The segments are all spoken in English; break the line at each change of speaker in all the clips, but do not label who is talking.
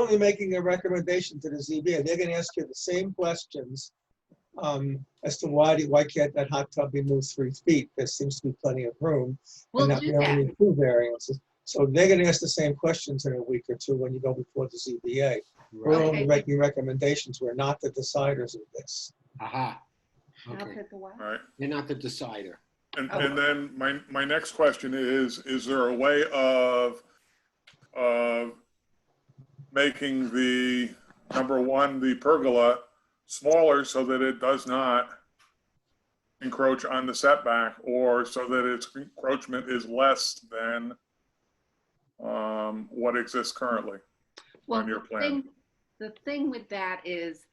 only making a recommendation to the ZBA, they're gonna ask you the same questions um, as to why, do- why can't that hot tub be moved three feet? There seems to be plenty of room.
We'll
and that
do
we only
that.
need Two variances. So they're gonna ask the same questions in a week or two when you go before the ZBA. We're
Okay.
only making recommendations, we're not the deciders of this.
Aha.
I'll
Okay,
pick a while.
Right.
you're not the decider.
And,
Oh.
and then my, my next question is, is there a way of, of making the, number one, the pergola smaller so that it does not encroach on the setback or so that its encroachment is less than um, what exists currently?
Well,
on your
the
plan.
thing- The thing with that is,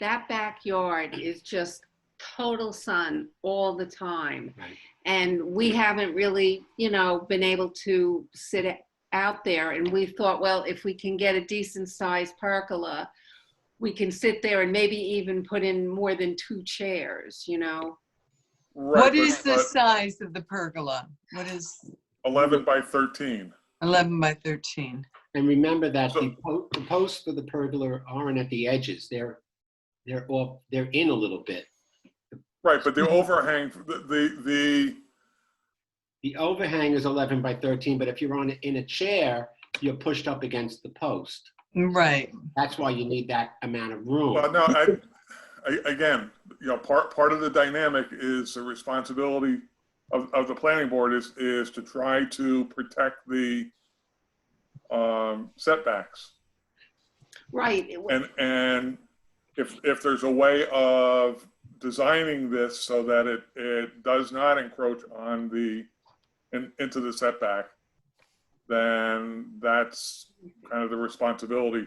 that backyard is just total sun all the time.
Right.
And we haven't really, you know, been able to sit it out there. And we thought, well, if we can get a decent sized pergola, we can sit there and maybe even put in more than two chairs, you know?
Right,
What
but-
is the
but
size of the pergola? What is
11 by 13.
11 by 13?
And remember that
So-
the po- the posts for the pergola aren't at the edges. They're, they're off, they're in a little bit.
Right, but
Mm-hmm.
the overhang, the, the, the
The overhang is 11 by 13, but if you're on, in a chair, you're pushed up against the post.
Right.
That's why you need that amount of room.
Well, no, I, I, again, you know, part, part of the dynamic is the responsibility of, of the planning board is, is to try to protect the, um, setbacks.
Right. it-
And, and if, if there's a way of designing this so that it, it does not encroach on the, in, into the setback, then that's kind of the responsibility.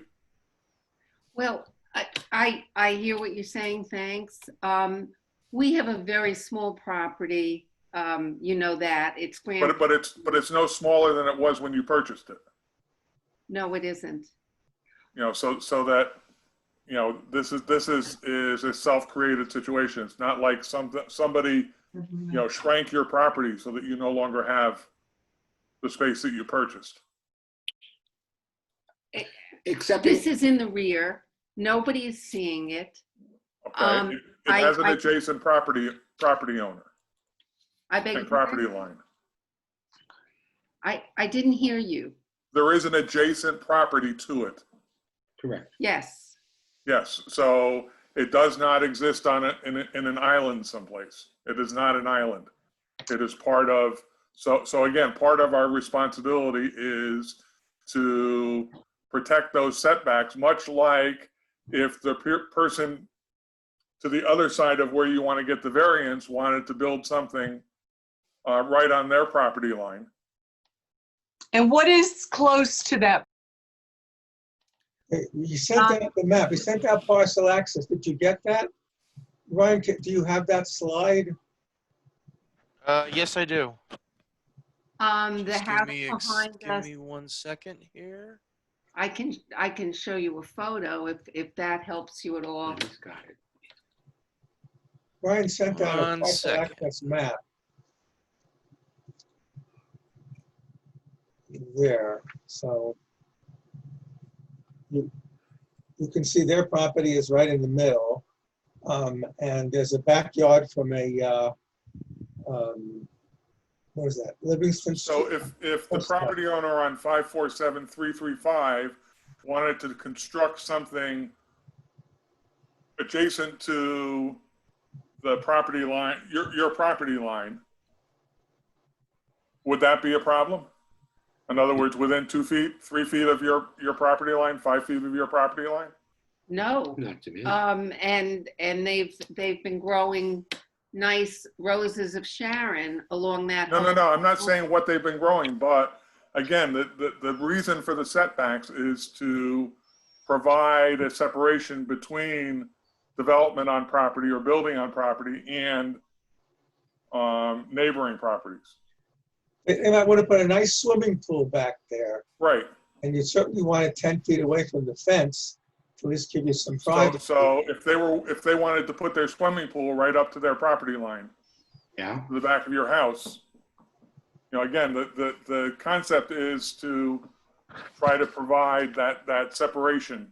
Well, I, I, I hear what you're saying, thanks. Um, we have a very small property, um, you know that, it's grand,
But, but it's, but it's no smaller than it was when you purchased it.
no, it isn't.
you know, so, so that, you know, this is, this is, is a self-created situation. It's not like some, somebody, you know, shrank your property so that you no longer have the space that you purchased.
Except,
This is in the rear, nobody is seeing it. Um,
Okay, It- it
I-
has an
I-
adjacent property, property owner
I beg your
and property
pardon?
line.
I, I didn't hear you,
There is an adjacent property to it.
correct.
yes.
Yes, so it does not exist on a, in, a- in an island someplace. It is not an island. It is part of, so, so again, part of our responsibility is to protect those setbacks, much like if the per- person to the other side of where you want to get the variance wanted to build something uh, right on their property line.
And what is close to that?
Hey, You sent
Um,
out the map, you sent out parcel access, did you get that? Ryan, ca- do you have that slide?
Uh, yes, I do.
Um, the
Just give
house
me ex-
behind
Give
us,
me one second here.
I can, I can show you a photo if, if that helps you at all.
He's got it.
Ryan sent out a
One
parcel
second.
access map. There, so. You, you can see their property is right in the middle. Um, and there's a backyard from a, uh, um, what is that, Livingston?
So if, if the
What's that?
property owner on five four seven three three five wanted to construct something adjacent to the property line, your, your property line, would that be a problem? In other words, within two feet, three feet of your, your property line, five feet of your property line?
No.
Not to me.
Um, and, and they've, they've been growing nice roses of Sharon along that.
No, no,
whole-
no, I'm not saying what they've been growing, but again, the, the, the reason for the setbacks is to provide a separation between development on property or building on property and um, neighboring properties.
They they might want to put a nice swimming pool back there,
Right,
and you certainly want it 10 feet away from the fence to at least give you some
so,
privacy.
so if they were, if they wanted to put their swimming pool right up to their property line,
Yeah,
to the back of your house, you know, again, the, the, the concept is to try to provide that, that separation